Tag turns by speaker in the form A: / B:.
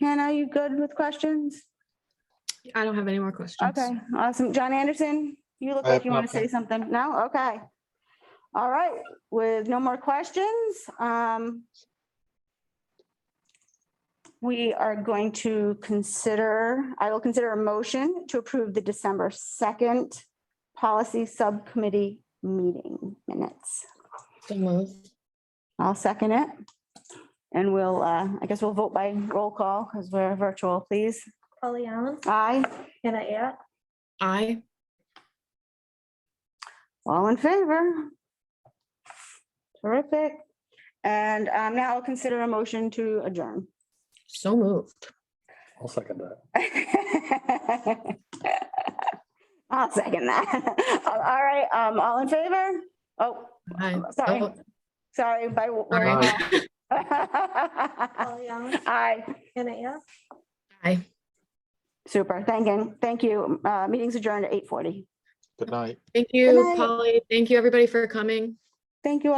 A: Hannah, you good with questions?
B: I don't have any more questions.
A: Okay, awesome. John Anderson, you look
C: I
A: like
C: have
A: you want to say something. No? Okay. All right, with no more questions, um, we are going to consider, I will consider a motion to approve the December 2nd policy subcommittee meeting minutes.
D: So moved.
A: I'll second it. And we'll, uh, I guess we'll vote by roll call because we're virtual, please.
E: Polly Allen,
A: Aye,
E: Hannah App,
D: Aye.
A: all in favor? Terrific. And um, now I'll consider a motion to adjourn.
D: So moved.
C: I'll second that.
A: I'll second that. All right, um, all in favor? Oh,
D: Aye.
A: Sorry.
D: Oh,
A: sorry, by. roll
D: All
A: call.
D: right.
E: Polly Allen,
A: Aye,
E: Hannah App.
D: Aye.
A: super, thank you, thank you. Uh, Meeting's adjourned at 8:40.
C: Good night.
B: Thank you,
A: night.
B: Polly. Thank you, everybody, for coming.
A: Thank you all.